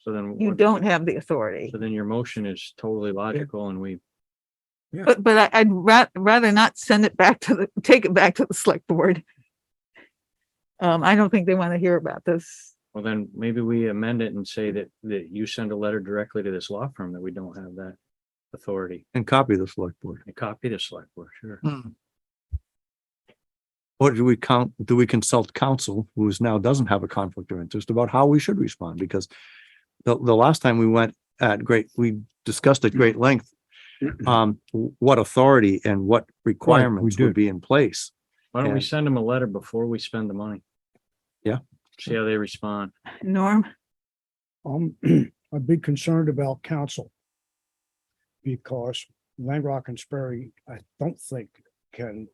So then. You what- don't have the authority. So then your motion is totally logical and we, But, but I- I'd ra- rather not send it back to the, take it back to the select board. Um, I don't think they want to hear about this. well, then maybe we amend it and say that, that you send a letter directly to this law firm that we don't have that authority. and copy the select board. And copy the select board, sure. Or do we count, do we consult counsel who is now doesn't have a conflict of interest about how we should respond? Because the, the last time we went at great, we discussed at great length um, what authority and what requirements would did. be in place. Why don't we Yeah. send them a letter before we spend the money? Yeah. See how they respond. Norm, Um, I'd be concerned about council. Because Langrock and Sperry, I don't think can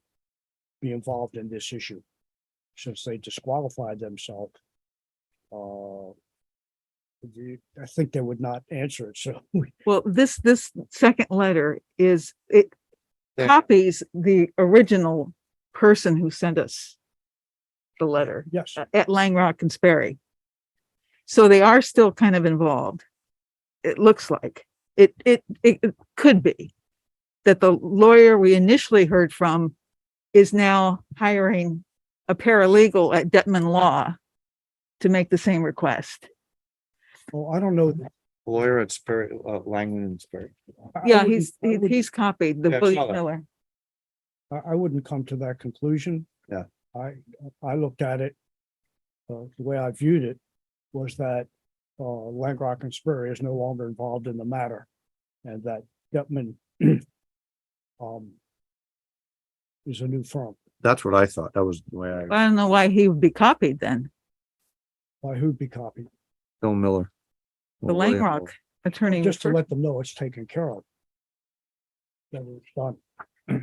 be involved in this issue. Since they disqualified themselves. Uh. the- I think they would not answer it, so we- well, this, this second letter is, it Yeah. copies the original person who sent us the letter. yes, uh, at Langrock and Sperry. So they are still kind of involved. It looks like it, it, it it could be that the lawyer we initially heard from is now hiring a paralegal at Detman Law to make the same request. well, I don't know. Lawyer at Spirit, uh, Langland and Spirit. I- I Yeah, wouldn't- he's, I he- wouldn't- he's copied the Yeah, I William saw that. Miller. I, I wouldn't come to that conclusion. Yeah. I, I looked at it, uh, the way I viewed it was that, uh, Langrock and Spur is no longer involved in the matter. And that Gutman, um, is a new firm. That's what I thought. That was the way I, I don't know why he would be copied then. By who'd be copied? Bill Miller. The Lawyer. Langrock attorney. Just to refer- let them know it's taken care of. That was done. I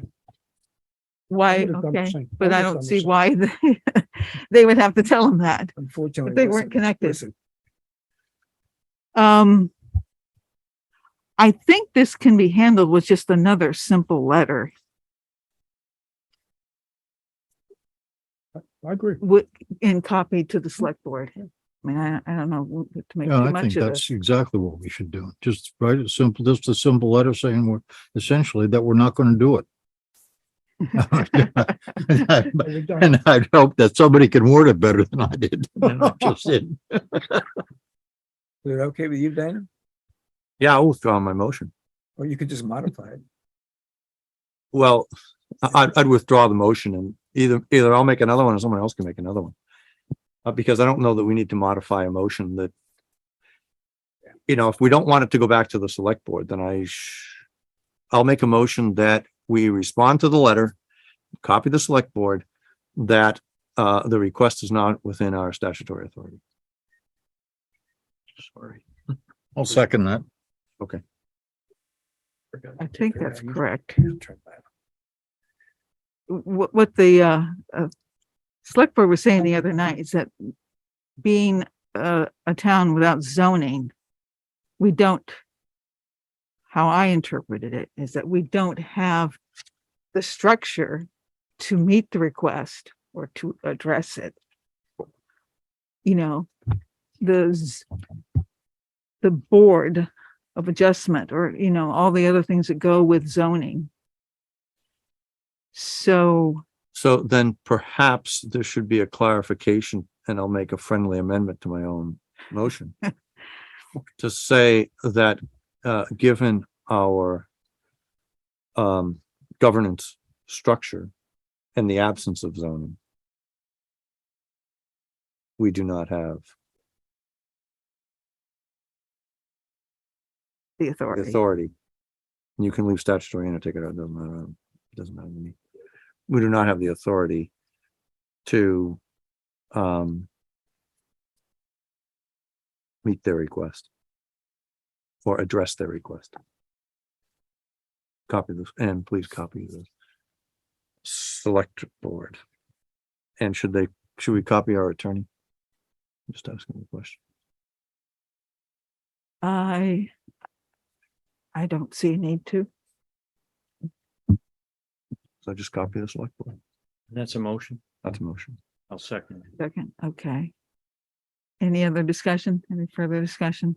Why, would've done the okay, same. but I would've don't done the see same. why they- they would have to tell him that. Unfortunately. But they listen, weren't connected. listen, Um, I think this can be handled with just another simple letter. I agree. With, and copy to the select board. I mean, I, I don't know what to make Yeah, too I think much of this. that's exactly what we should do. Just write a simple, just a simple letter saying we're essentially that we're not going to do it. But we've done- And I'd hope that somebody can word it better than I did. than I just did. Is it okay with you, Dana? Yeah, I'll withdraw my motion. Or you could just modify it? Well, I- I'd, I'd withdraw the motion and either, either I'll make another one or someone else can make another one. Uh, because I don't know that we need to modify a motion that. You know, if we don't want it to go back to the select board, then I sh- I'll make a motion that we respond to the letter, copy the select board, that, uh, the request is not within our statutory authority. Sorry. I'll second that. I think that's Yeah, you- correct. you turn that. What, what the, uh, uh, select board was saying the other night is that being, uh, a town without zoning, we don't, how I interpreted it is that we don't have the structure to meet the request or to address it. You know, the, z- the board of adjustment or, you know, all the other things that go with zoning. So So then perhaps there should be a clarification and I'll make a friendly amendment to my own motion. To say that, uh, given our um, governance structure and the absence of zoning, we do not have the the authority. authority. You can leave statutory in or take it out, it doesn't matter, it doesn't matter to me. We do not have the authority to um meet their request or address their request. Copy this, and please copy the select board. And should they, should we copy our attorney? Just asking the question. I, I don't see a need to. So just copy the select board. That's a motion. That's a motion. I'll second. it. Second, okay. Any other discussion? Any further discussion?